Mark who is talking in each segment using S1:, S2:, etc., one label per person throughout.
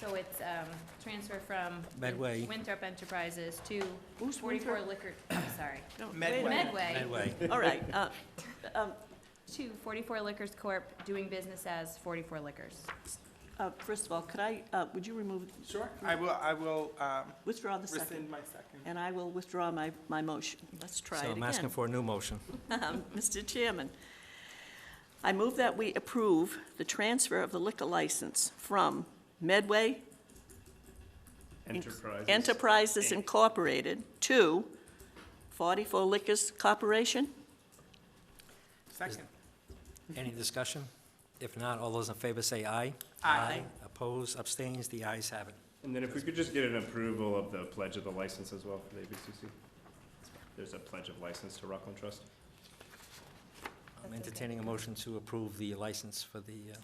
S1: So it's, um, transfer from.
S2: Medway.
S1: Winthrop Enterprises to
S3: Who's
S1: forty-four
S3: Winthrop?
S1: Liquor, I'm sorry,
S3: No, wait a
S2: Medway.
S3: minute.
S1: Medway.
S2: Medway.
S3: All right, uh, um,
S1: to forty-four Liquors Corp., doing business as forty-four Liquors.
S3: uh, first of all, could I, uh, would you remove,
S4: Sure, I will, I will um,
S3: withdraw the second?
S4: rescind my second.
S3: And I will withdraw my, my motion. Let's try it
S2: So
S3: again.
S2: I'm asking for a new motion.
S3: Um, Mr. Chairman, I move that we approve the transfer of the liquor license from Medway
S5: Enterprises.
S3: Enterprises Incorporated to 44 Liquors Corporation.
S4: Second.
S2: Any discussion? If not, all those in favor say aye.
S4: Aye.
S2: Oppose, abstains, the ayes have it.
S5: And then if we could just get an approval of the pledge of the license as well for the ABCC. There's a pledge of license to Rockland Trust.
S2: I'm entertaining a motion to approve the license for the uh,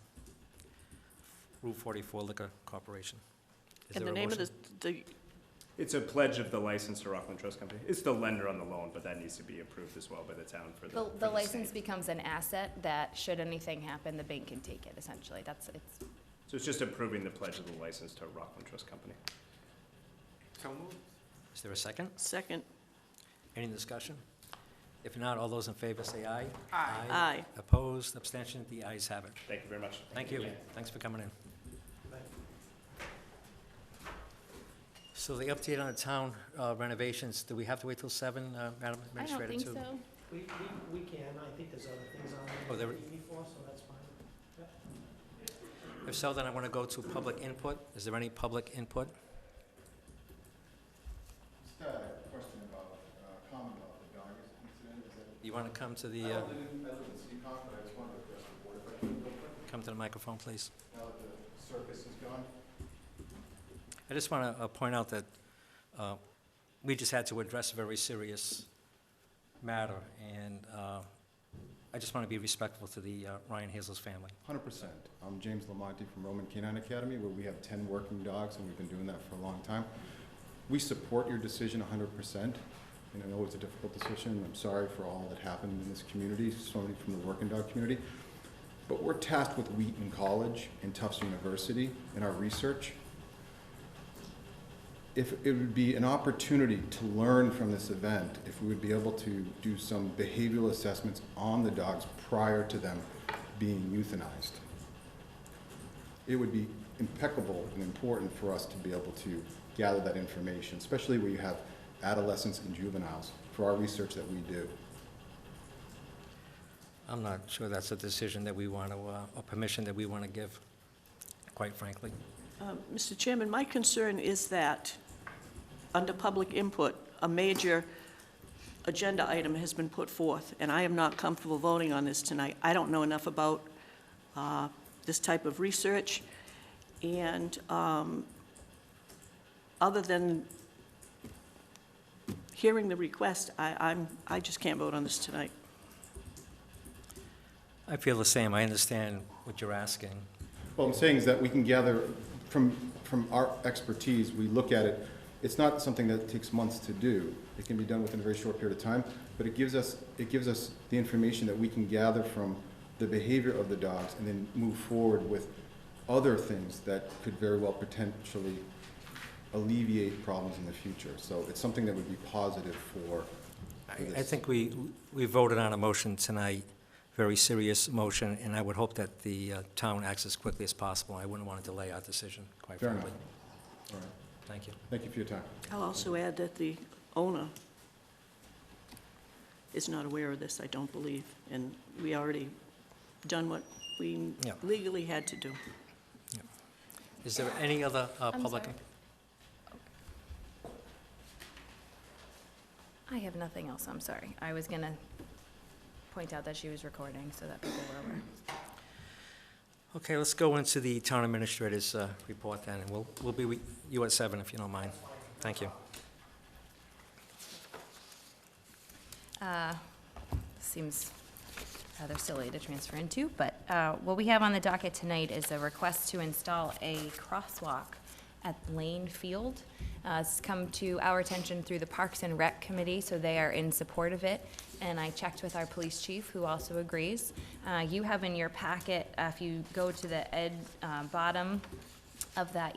S2: Route 44 Liquor Corporation. Is
S3: And the
S2: there a
S3: name of the,
S2: motion?
S3: the-
S5: It's a pledge of the license to Rockland Trust Company. It's the lender on the loan, but that needs to be approved as well by the town for the.
S1: The,
S5: for
S1: the
S5: the
S1: license
S5: state.
S1: becomes an asset that, should anything happen, the bank can take it, essentially, that's, it's,
S5: So it's just approving the pledge of the license to Rockland Trust Company.
S4: So moved.
S2: Is there a second?
S3: second,
S2: Any discussion? If not, all those in favor say aye.
S4: Aye.
S3: Aye.
S2: Opposed, abstention, the ayes have it.
S5: Thank you very much.
S2: Thank you. Thanks for coming in. So the update on the town uh, renovations, do we have to wait till seven, uh, Madam
S1: I
S2: Administrator?
S1: don't think
S2: too?
S1: so.
S6: We, we, we can, I think there's other things on
S2: Oh,
S6: there
S2: there-
S6: that we need for, so that's fine.
S2: If so, then I want to go to public input. Is there any public input?
S7: Just a question about, uh, comment about the Doggett incident, is that?
S2: You want to come to the, uh,
S7: I live in, I live in Seacon, but I just wanted to address the board if I could real quick,
S2: come to the microphone, please.
S7: now that the circus is gone.
S2: I just want to point out that uh, we just had to address a very serious matter, and uh, I just want to be respectful to the uh, Ryan Hazel's family.
S7: Hundred percent. I'm James Lamonti from Roman Canine Academy, where we have ten working dogs, and we've been doing that for a long time. We support your decision hundred percent, and I know it's a difficult decision, and I'm sorry for all that happened in this community, so many from the working dog community. But we're tasked with Wheaton College and Tufts University in our research. If it would be an opportunity to learn from this event, if we would be able to do some behavioral assessments on the dogs prior to them being euthanized. It would be impeccable and important for us to be able to gather that information, especially where you have adolescents and juveniles for our research that we do.
S2: I'm not sure that's a decision that we want to, or permission that we want to give, quite frankly.
S3: uh, Mr. Chairman, my concern is that, under public input, a major agenda item has been put forth, and I am not comfortable voting on this tonight. I don't know enough about uh, this type of research, and um, other than hearing the request, I, I'm, I just can't vote on this tonight.
S2: I feel the same. I understand what you're asking.
S7: What I'm saying is that we can gather from, from our expertise, we look at it. It's not something that takes months to do. It can be done within a very short period of time, but it gives us, it gives us the information that we can gather from the behavior of the dogs and then move forward with other things that could very well potentially alleviate problems in the future. So it's something that would be positive for
S2: I-
S7: for this.
S2: I think we, we voted on a motion tonight, very serious motion, and I would hope that the uh, town acts as quickly as possible. I wouldn't want to delay our decision, quite
S7: Fair enough.
S2: frankly.
S7: All right.
S2: Thank you.
S7: Thank you for your time.
S3: I'll also add that the owner is not aware of this, I don't believe, and we already done what we
S2: Yeah.
S3: legally had to do.
S2: Is there any other uh,
S1: I'm
S2: public?
S1: sorry. I have nothing else, I'm sorry. I was gonna point out that she was recording, so that people were aware.
S2: Okay, let's go into the town administrator's uh, report then, and we'll, we'll be with you at seven if you don't mind. Thank you.
S1: Uh, Seems uh, rather silly to transfer into, but uh, what we have on the docket tonight is a request to install a crosswalk at Lane Field. Uh, It's come to our attention through the Parks and Rec Committee, so they are in support of it. And I checked with our police chief, who also agrees. Uh, You have in your packet, uh, if you go to the ed, uh, bottom of that